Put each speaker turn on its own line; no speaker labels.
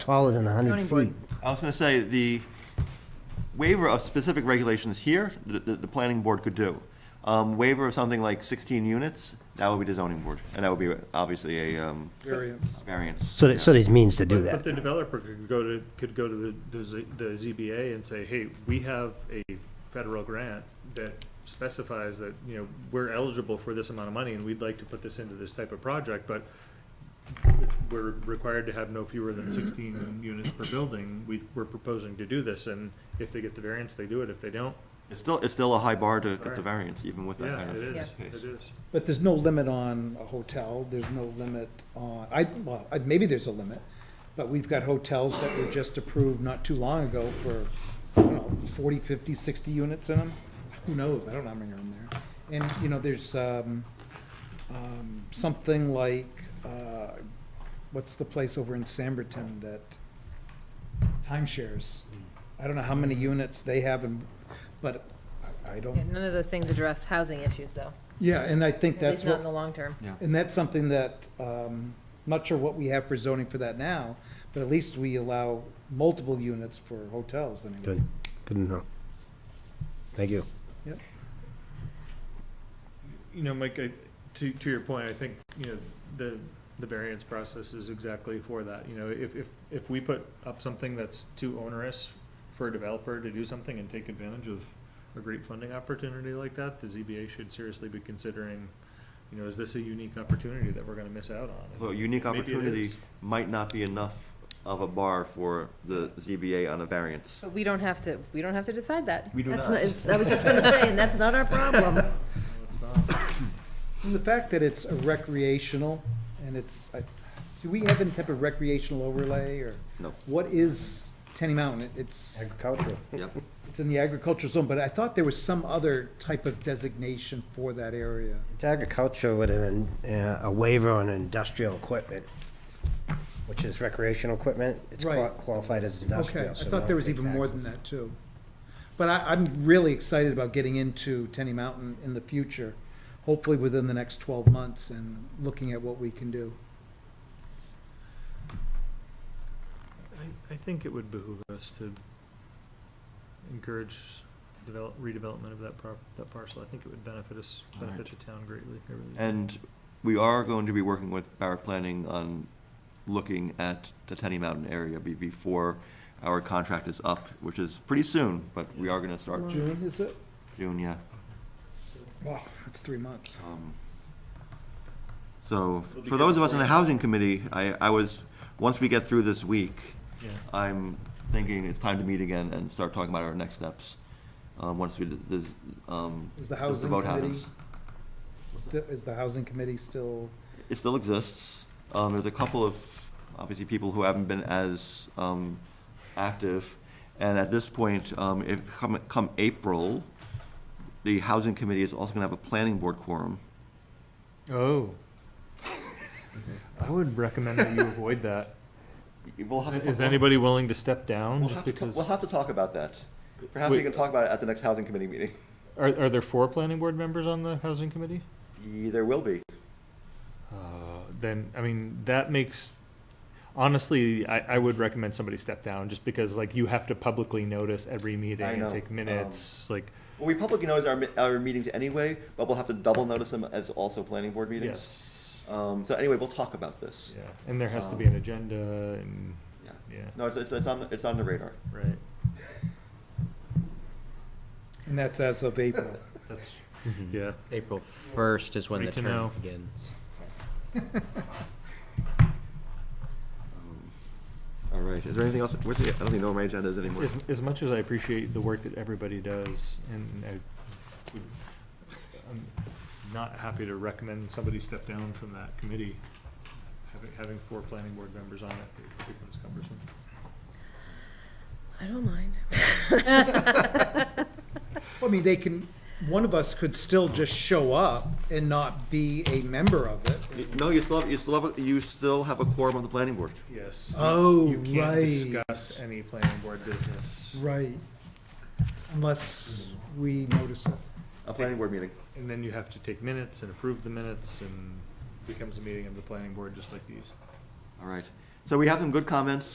taller than 100
Zoning board.
feet.
I was going to say, the waiver of specific regulations here, the, the, the planning board could do. Um, waiver of something like sixteen units, that would be the zoning board, and that would be obviously a, um,
variance.
variance.
So there- so there's means to do
But- But
that.
the developer could go to, could go to the, the Z- the ZBA and say, hey, we have a federal grant that specifies that, you know, we're eligible for this amount of money and we'd like to put this into this type of project, but we're required to have no fewer than sixteen units per building. We, we're proposing to do this, and if they get the variance, they do it. If they don't,
It's still, it's still a high bar to get the
Sorry.
variance, even with that
yeah,
kind
it
of
is,
case.
it is.
But there's no limit on a hotel, there's no limit on, I, well, I- maybe there's a limit, but we've got hotels that were just approved not too long ago for, I don't know, 40, 50, 60 units in them. Who knows, I don't know how many are in there. And, you know, there's um, um, something like, uh, what's the place over in Samberton that timeshares? I don't know how many units they have, in- but I I
Yeah,
don't,
None of those things address housing issues, though,
yeah, and I think
at least
that's
not
what.
in the long term.
Yeah.
And that's something that, um, not sure what we have for zoning for that now, but at least we allow multiple units for hotels anyway.
Good, good to know. Thank you.
Yep.
You know, Mike, I, to, to your point, I think, you know, the, the variance process is exactly for that. You know, if, if, if we put up something that's too onerous for a developer to do something and take advantage of a great funding opportunity like that, the ZBA should seriously be considering, you know, is this a unique opportunity that we're gonna miss out on?
So a unique
Maybe it
opportunity
is.
might not be enough of a bar for the ZBA on a variance.
But we don't have to, we don't have to decide that.
We do
That's
not.
not, it's, I was just gonna say, and that's not our problem.
No, it's not.
And the fact that it's a recreational and it's, I- do we have any type of recreational overlay or?
No.
What is Tenny Mountain? It- It's,
Agricultural.
Yep.
it's in the agricultural zone, but I thought there was some other type of designation for that area.
It's agriculture with an, uh, a waiver on industrial equipment, which is recreational equipment. It's qua-
Right.
qualified as
Okay,
industrial.
I
so
thought
no
there was
big
even more than
taxes.
that too. But I, I'm really excited about getting into Tenny Mountain in the future, hopefully within the next twelve months and looking at what we can do.
I, I think it would behoove us to encourage develop, redevelopment of that prop, that parcel. I think it would benefit us, benefit the town greatly. I really do.
And we are going to be working with Barrett Planning on looking at the Tenny Mountain area be- before our contract is up, which is pretty soon, but we are gonna start
June, is it?
June, yeah.
Wow, it's three months.
Um, So, for those of us in the housing committee, I, I was, once we get through this week,
Yeah.
I'm thinking it's time to meet again and start talking about our next steps, um, once we, d- this, um.
Is the
if
housing
vote
committee-
happens.
Still, is the housing committee still,
It still exists. Um, there's a couple of, obviously, people who haven't been as, um, active. And at this point, um, if, come, come April, the housing committee is also gonna have a planning board quorum.
Oh. I would recommend that you avoid that.
We'll have to
Is
talk-
anybody willing to step down?
We'll
just
have to,
because-
we'll have to talk about that. Perhaps we
Wait.
can talk about it at the next housing committee meeting.
Are, are there four planning board members on the housing committee?
Yeah, There will be.
Uh, Then, I mean, that makes, honestly, I, I would recommend somebody step down, just because like you have to publicly notice every meeting
I
and
know,
take
um,
minutes, like,
Well, we publicly notice our, mi- our meetings anyway, but we'll have to double notice them as also planning board meetings.
yes.
Um, so anyway, we'll talk about this.
Yeah, and there has to be
Um,
an agenda and,
Yeah.
yeah,
No, it's, it's, it's on, it's on the radar.
right,
and that's as of April.
that's, yeah.
April first is when the
Great to
term
know.
begins.
All right, is there anything else? Where's the, I don't even know where my agenda is anymore.
As, as much as I appreciate the work that everybody does, and I would, I'm not happy to recommend somebody step down from that committee. Having, having four planning board members on it, it becomes cumbersome.
I don't mind.
I mean, they can, one of us could still just show up and not be a member of it.
You- No, you still have, you still have, a- you still have a quorum of the planning board.
Yes.
Oh,
You can't
right.
discuss any planning board business,
Right. Unless we notice it.
A planning board meeting.
and then you have to take minutes and approve the minutes, and becomes a meeting of the planning board, just like these.
All right. So we have some good comments